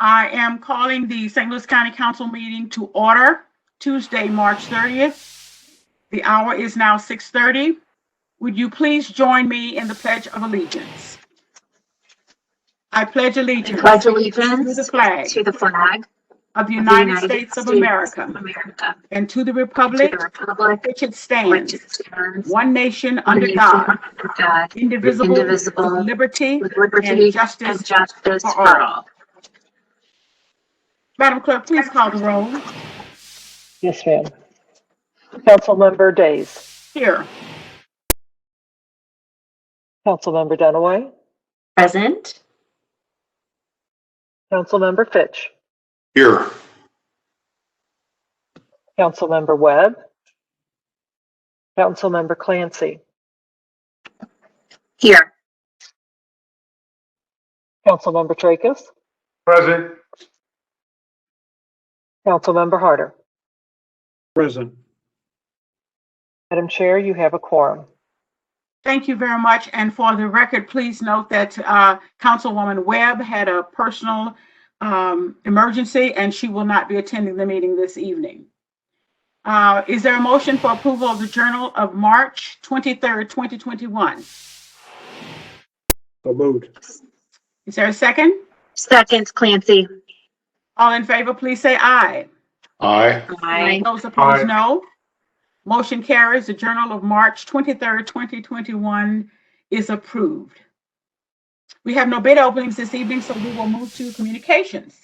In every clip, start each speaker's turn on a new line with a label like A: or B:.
A: I am calling the St. Louis County Council meeting to order Tuesday, March 30th. The hour is now 6:30. Would you please join me in the Pledge of Allegiance? I pledge allegiance
B: Pledge
A: to the
B: allegiance
A: flag
B: to the
A: of
B: flag
A: the
B: of the
A: United States of America
B: America,
A: and to the
B: to
A: republic
B: the republic
A: which it
B: which
A: stands,
B: stands
A: one nation
B: one
A: under
B: nation
A: God,
B: under God,
A: indivisible, with
B: indivisible,
A: liberty
B: with
A: and
B: liberty and
A: justice.
B: justice
A: for
B: for
A: all.
B: all.
A: Madam Clerk, please call the roll.
C: Yes, ma'am. Councilmember Days.
A: Here.
C: Councilmember Dunaway.
B: Present.
C: Councilmember Fitch.
D: Here.
C: Councilmember Webb. Councilmember Clancy.
B: Here.
C: Councilmember Tracus.
D: Present.
C: Councilmember Harder.
E: Present.
C: Madam Chair, you have a quorum.
A: Thank you very much. And for the record, please note that uh, Councilwoman Webb had a personal um, emergency and she will not be attending the meeting this evening. Uh, Is there a motion for approval of the Journal of March 23rd, 2021?
E: So moved.
A: Is there a second?
B: Second, Clancy.
A: All in favor, please say aye.
D: Aye.
B: Aye.
A: Those opposed,
D: Aye.
A: no. Motion carries. The Journal of March 23rd, 2021 is approved. We have no bid openings this evening, so we will move to communications.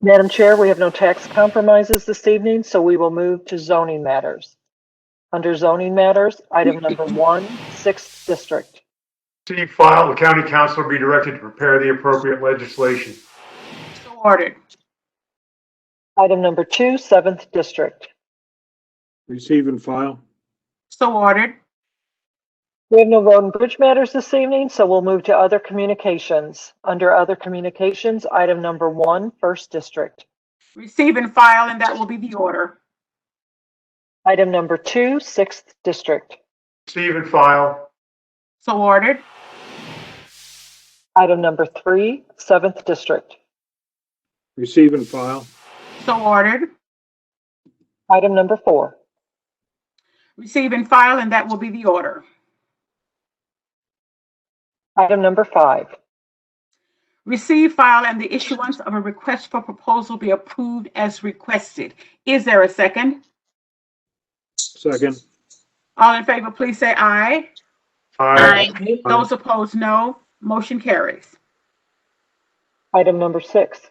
C: Madam Chair, we have no tax compromises this evening, so we will move to zoning matters. Under zoning matters, item number one, sixth district.
D: See file, the county council be directed to prepare the appropriate legislation.
A: So ordered.
C: Item number two, seventh district.
E: Receive and file.
A: So ordered.
C: We have no road and bridge matters this evening, so we'll move to other communications. Under other communications, item number one, first district.
A: Receive and file, and that will be the order.
C: Item number two, sixth district.
D: Receive and file.
A: So ordered.
C: Item number three, seventh district.
E: Receive and file.
A: So ordered.
C: Item number four.
A: Receive and file, and that will be the order.
C: Item number five.
A: Receive, file, and the issuance of a request for proposal be approved as requested. Is there a second?
E: Second.
A: All in favor, please say aye.
D: Aye.
A: Those opposed, no. Motion carries.
C: Item number six.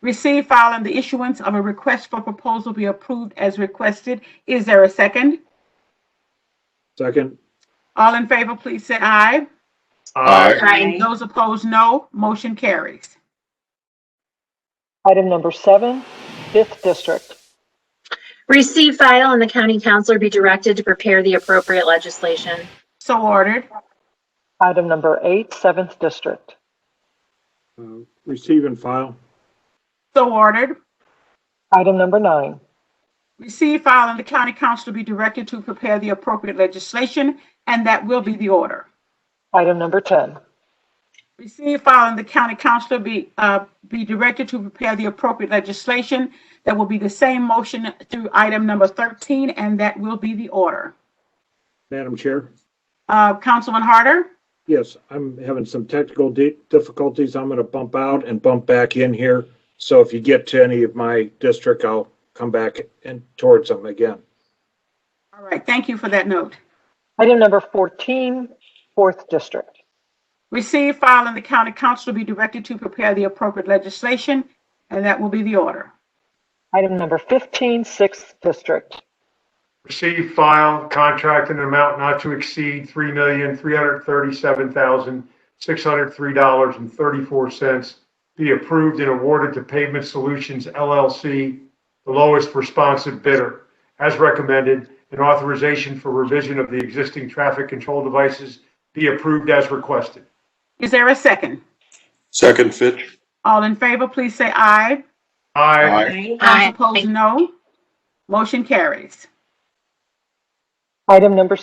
A: Receive, file, and the issuance of a request for proposal be approved as requested. Is there a second?
E: Second.
A: All in favor, please say aye.
D: Aye.
B: Aye.
A: Those opposed, no. Motion carries.
C: Item number seven, fifth district.
B: Receive file and the county councilor be directed to prepare the appropriate legislation.
A: So ordered.
C: Item number eight, seventh district.
E: Uh, Receive and file.
A: So ordered.
C: Item number nine.
A: Receive, file, and the county council be directed to prepare the appropriate legislation, and that will be the order.
C: Item number 10.
A: Receive, file, and the county council be, uh, be directed to prepare the appropriate legislation. That will be the same motion through item number 13, and that will be the order.
E: Madam Chair?
A: Uh, Councilman Harder?
E: Yes, I'm having some technical di- difficulties. I'm going to bump out and bump back in here. So if you get to any of my district, I'll come back and towards them again.
A: All right, thank you for that note.
C: Item number 14, fourth district.
A: Receive, file, and the county council be directed to prepare the appropriate legislation, and that will be the order.
C: Item number 15, 6th District.
F: Receive, file, contract in an amount not to exceed three million, three hundred thirty-seven thousand, six hundred three dollars and thirty-four cents be approved and awarded to Pavement Solutions LLC, the lowest responsive bidder, as recommended, and authorization for revision of the existing traffic control devices be approved as requested.
A: Is there a second?
D: Second, Fitch.
A: All in favor, please say aye.
F: Aye.
D: Aye.
A: Those opposed, no. Motion carries.
C: Item number